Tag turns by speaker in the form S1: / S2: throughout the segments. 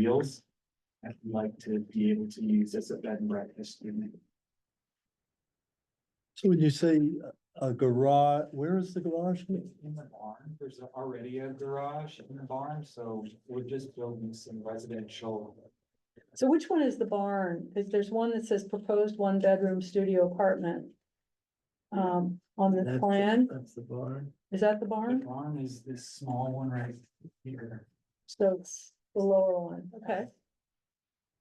S1: Wheels. I'd like to be able to use as a bed and breakfast unit.
S2: So when you say a garage, where is the garage?
S1: In the barn, there's already a garage in the barn, so we're just building some residential.
S3: So which one is the barn? Is there's one that says proposed one bedroom studio apartment? Um, on the plan,
S2: That's the barn.
S3: is that the
S1: The
S3: barn?
S1: barn is this small one right here.
S3: So it's the lower one, okay.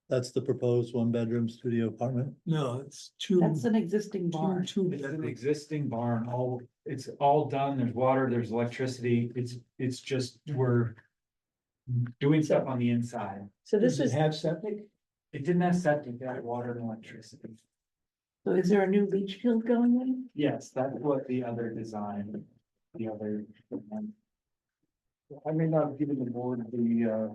S2: That's the proposed one-bedroom studio apartment?
S4: No, it's two.
S5: That's an existing barn.
S4: Two,
S1: It's an
S4: two.
S1: existing barn, all, it's all done, there's water, there's electricity, it's, it's just, we're. Doing stuff on the inside,
S3: So this is,
S4: Have septic?
S1: it didn't have septic, it had water and electricity.
S5: So is there a new leach field going in?
S1: Yes, that's what the other design, the other. um, I may not have given the board the, uh.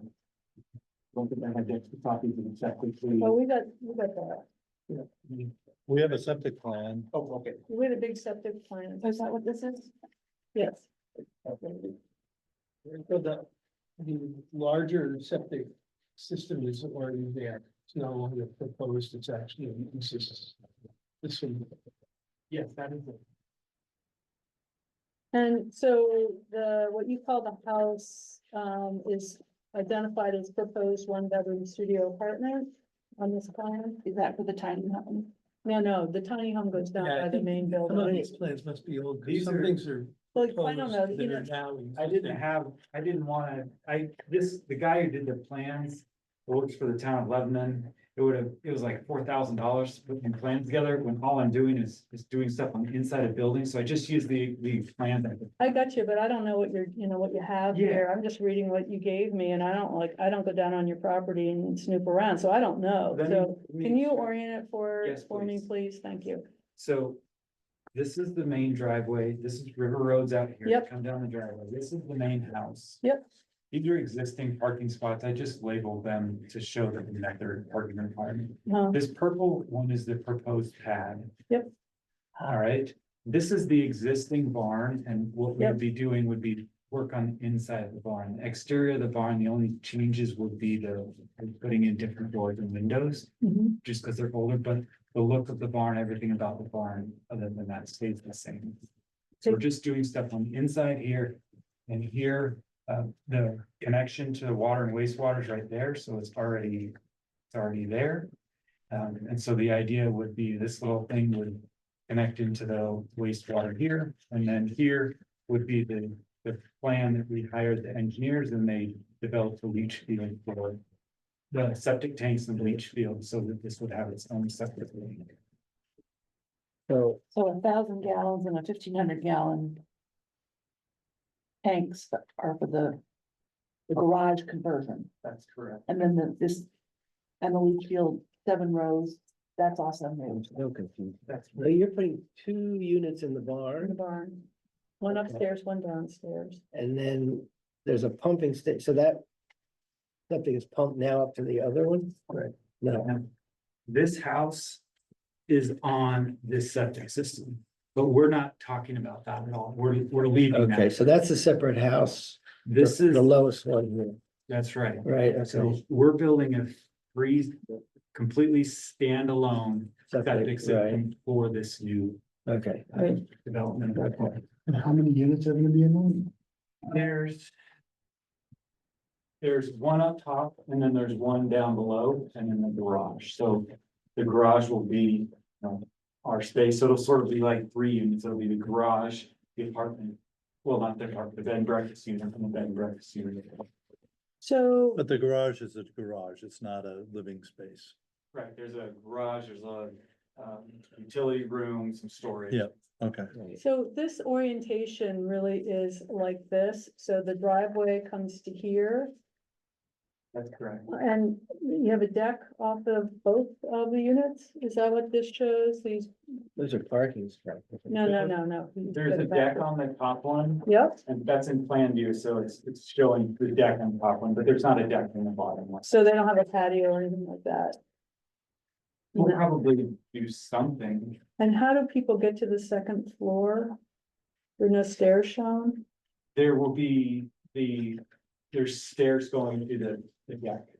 S1: Don't think I had extra copies of the septic. please.
S3: well,
S5: Oh.
S3: oh, we got, we got that.
S2: We have a septic plan.
S1: Oh, okay.
S3: We had a big septic plan.
S5: Is that what this is?
S3: Yes,
S4: So the, the larger septic system is already there. It's no longer proposed, it's actually exists. This one,
S1: Yes, that is it.
S3: and so the, what you call the house, um, is identified as proposed one bedroom studio apartment on this plan?
S5: Is that for the tiny home?
S3: No, no, the tiny home goes down
S4: Yeah, I
S3: by the
S4: think
S3: main
S4: some of
S3: building.
S4: these plans must be old, 'cause
S1: These
S4: some
S1: are-
S4: things are.
S3: Like, I don't know,
S4: proposed
S3: you
S4: that are
S3: know,
S4: now
S1: I didn't
S4: existing.
S1: have, I didn't wanna, I, this, the guy who did the plans works for the town of Lebanon. It would have, it was like four thousand dollars to put the plans together when all I'm doing is, is doing stuff on the inside of buildings, so I just use the, the plan that.
S3: I got you, but I don't know what you're, you know, what you have
S1: Yeah.
S3: here. I'm just reading what you gave me and I don't like, I don't go down on your property and snoop around, so I don't know.
S1: Let me-
S3: So
S1: let me-
S3: can you orient it for,
S1: Yes,
S3: for me,
S1: please.
S3: please? Thank you.
S1: So this is the main driveway. This is River Road's out here.
S3: Yep.
S1: Come down the driveway. This is the main house.
S3: Yep.
S1: These are existing parking spots. I just labeled them to show that that they're parking requirement.
S3: Uh,
S1: This purple one is the proposed pad.
S3: Yep.
S1: All right, this is the existing barn and what we
S3: Yep.
S1: would be doing would be work on inside the barn. Exterior of the barn, the only changes would be the putting in different doors and windows
S3: mhm.
S1: just because they're older, but the look of the barn, everything about the barn, other than that stays the same. So we're just doing stuff on the inside here and here, uh, the connection to the water and wastewater is right there, so it's already, it's already there. Um, and so the idea would be this little thing would connect into the wastewater here, and then here would be the, the plan that we hired the engineers and they developed a leach field for the septic tanks and bleach field so that this would have its own septic. tank.
S2: So
S5: So a thousand gallons and a fifteen hundred gallon. Tanks that are for the. The garage conversion
S1: That's correct.
S5: and then the, this. And the leach field, seven rows, that's awesome news.
S6: So confused.
S1: That's
S6: So you're putting two units in the
S3: In the
S6: barn
S3: barn. One
S6: Okay.
S3: upstairs, one downstairs.
S6: and then there's a pumping station, so that. Something is pumped now up to the other one? Right. No,
S1: Now, This house is on this septic system, but we're not talking about that at all. We're, we're leaving
S6: okay,
S1: that.
S6: so that's a separate house. the-
S1: This is,
S6: The lowest one here,
S1: that's right.
S6: right, okay.
S1: So we're building a free, completely standalone septic
S6: Separate, right,
S1: system for this new
S6: okay.
S3: Right.
S1: development.
S4: And how many units are gonna be in one?
S1: There's. There's one up top and then there's one down below and then the garage. So the garage will be, you know, our space. So it'll sort of be like three units. It'll be the garage, the apartment. Well, not the apartment, the bed and breakfast unit and the bed and breakfast unit.
S3: So,
S2: But the garage is a garage, it's not a living space.
S1: Right, there's a garage, there's a um utility room, some storage.
S2: Yeah. Okay.
S3: so this orientation really is like this. So the driveway comes to here.
S1: That's correct.
S3: And you have a deck off of both of the units? Is that what this shows? These,
S6: Those are parking spots.
S3: no, no, no, no.
S1: There's a deck on the top one
S3: Yep,
S1: and that's in plan view, so it's it's showing the deck on the top one, but there's not a deck in the bottom one.
S3: so they don't have a patio or anything like that.
S1: We'll
S3: No.
S1: probably do something.
S3: And how do people get to the second floor? There are no stairs shown?
S1: There will be the, there's stairs going to the, the deck.